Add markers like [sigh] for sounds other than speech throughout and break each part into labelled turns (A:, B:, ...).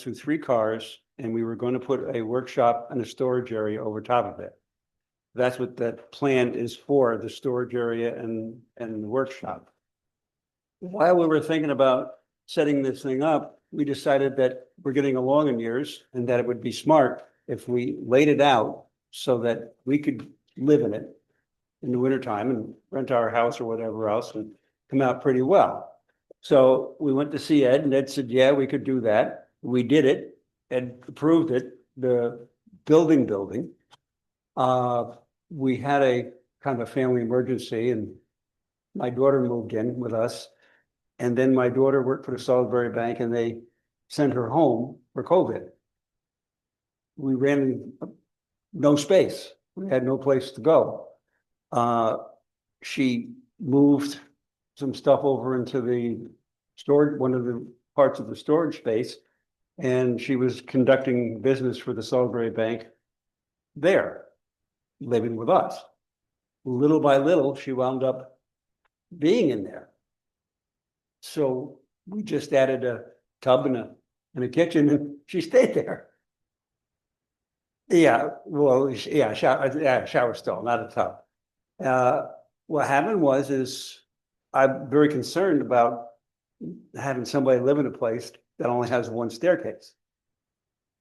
A: through three cars and we were going to put a workshop and a storage area over top of it. That's what that plan is for, the storage area and, and the workshop. While we were thinking about setting this thing up, we decided that we're getting along in years and that it would be smart if we laid it out so that we could live in it in the wintertime and rent our house or whatever else and come out pretty well. So we went to see Ed and Ed said, yeah, we could do that. We did it. Ed approved it, the building, building. Uh, we had a kind of a family emergency and my daughter moved in with us. And then my daughter worked for the Salisbury Bank and they sent her home for COVID. We ran uh, no space. We had no place to go. Uh, she moved some stuff over into the storage, one of the parts of the storage space. And she was conducting business for the Salisbury Bank there, living with us. Little by little, she wound up being in there. So we just added a tub and a, and a kitchen and she stayed there. Yeah, well, sh- yeah, shower, yeah, shower stall, not a tub. Uh, what happened was is I'm very concerned about having somebody live in a place that only has one staircase.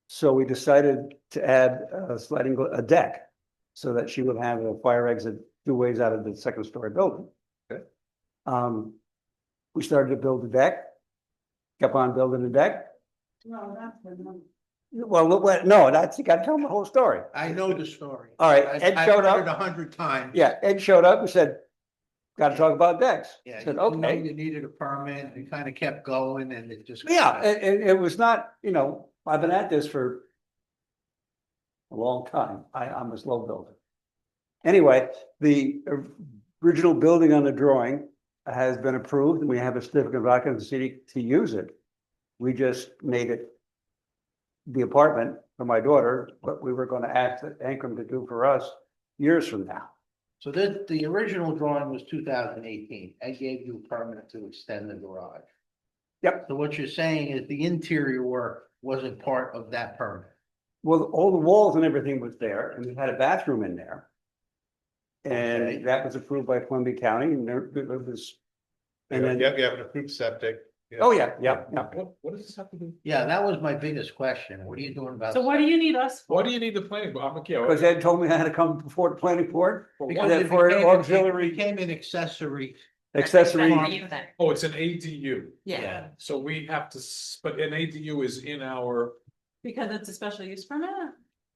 A: So we decided to add a sliding, gla- a deck so that she would have a fire exit two ways out of the second story building.
B: Okay.
A: Um, we started to build the deck, kept on building the deck.
C: Well, that's the number.
A: Well, what- what- no, that's, you gotta tell them the whole story.
B: I know the story.
A: All right,
B: I've-
A: Ed
B: I've
A: showed up.
B: heard it A hundred times.
A: Yeah, Ed showed up and said, gotta talk about decks.
B: Yeah, you
A: Said,
B: know
A: okay.
B: you needed a permit, you kind of kept going and it just.
A: Yeah, and, and it was not, you know, I've been at this for a long time. I, I'm a slow builder. Anyway, the original building on the drawing has been approved and we have a certificate of occupancy to use it. We just made it the apartment for my daughter, what we were gonna ask Ankrum to do for us years from now.
B: So the, the original drawing was two thousand eighteen. I gave you a permit to extend the garage.
A: Yep.
B: So what you're saying is the interior work wasn't part of that permit.
A: Well, all the walls and everything was there and we had a bathroom in there.
B: Okay.
A: And that was approved by Columbia County and there it was. And
D: Yeah,
A: then,
D: you have, you have an approved septic. yeah.
A: oh, yeah, yeah, yeah.
D: What, what does this have to do?
B: Yeah, that was my biggest question. What are you doing about?
C: So what do you need us
D: Why
C: for?
D: do you need the planning? board? I'm, yeah.
A: Because Ed told me I had to come before the planning board,
B: Because
A: that
B: it
A: for an
B: became- it
A: auxiliary-
B: Became an accessory.
A: accessory,
B: Accessory.
D: Oh, it's an ADU,
C: Yeah,
D: so we have to, s- but an ADU is in our,
C: because it's a special use permit.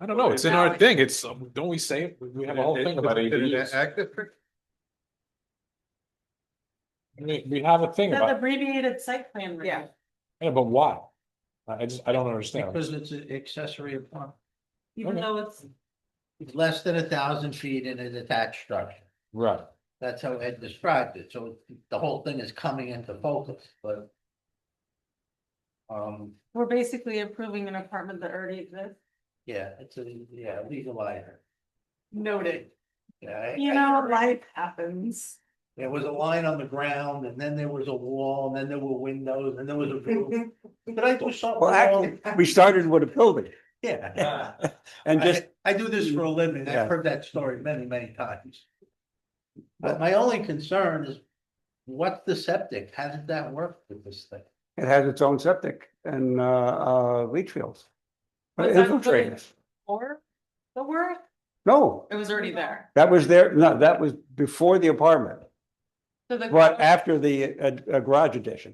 D: I don't know, it's in our thing, it's, um, don't we say, it? we have a whole thing about ADUs. We, we have a thing
C: That
D: about,
C: abbreviated site plan. review.
E: Yeah.
D: yeah, but why? I, I just, I don't understand.
B: Because it's an accessory apartment.
C: Even
D: Okay.
C: though it's,
B: It's less than a thousand feet in an attached structure.
D: Right,
B: That's how Ed described it, so the whole thing is coming into focus, but. Um,
C: we're basically approving an apartment that already exists.
B: yeah, it's a, yeah, legalizer.
C: Noted.
B: Yeah, I-
C: You know, life happens.
B: There was a line on the ground, and then there was a wall, and then there were windows, and there was a roof. Did I do something
A: well, actually,
B: wrong?
A: we started with a building [laughs]
B: Yeah.
A: and
B: I-
A: just,
B: I do this for a living,
A: Yeah.
B: I've heard that story many, many times. But my only concern is, what's the septic, how did that work with this thing?
A: it has its own septic and, uh, uh, leach fields. But
C: Was that put in-
A: infiltrators,
C: Or the work,
A: no,
C: it was already there.
A: that was there, no, that was before the apartment,
C: So the.
A: but
C: garage-
A: after the, uh, uh, garage addition.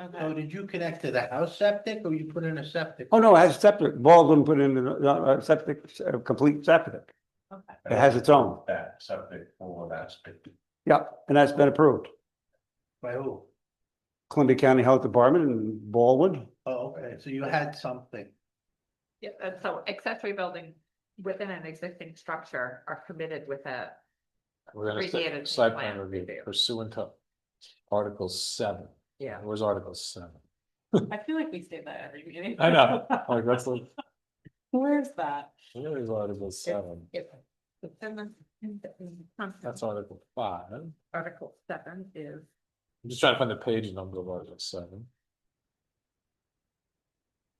B: So
C: Okay.
B: did you connect to the house septic or you put in a septic?
A: Oh, no, it has septic, Baldwin put in a, a septic, a complete septic,
C: Okay.
A: it has its own,
B: That septic for that septic.
A: yep, and that's been approved.
B: By who?
A: Columbia County Health Department and Baldwin,
B: Oh, okay, so you had something.
E: Yeah, and so accessory building within an existing structure are permitted with a,
D: we're gonna say,
E: Abbreviated
D: site
E: plan
D: plan review
E: review.
D: pursuant to Article seven,
E: yeah.
D: where's Article seven?
C: I feel like we say that every meeting.
D: I know, like, that's, like-
C: Where's that?
D: where is Article seven?
E: If- and then- and then-
D: That's Article five. I'm
E: Article seven is,
D: just trying to find the page number of Article seven.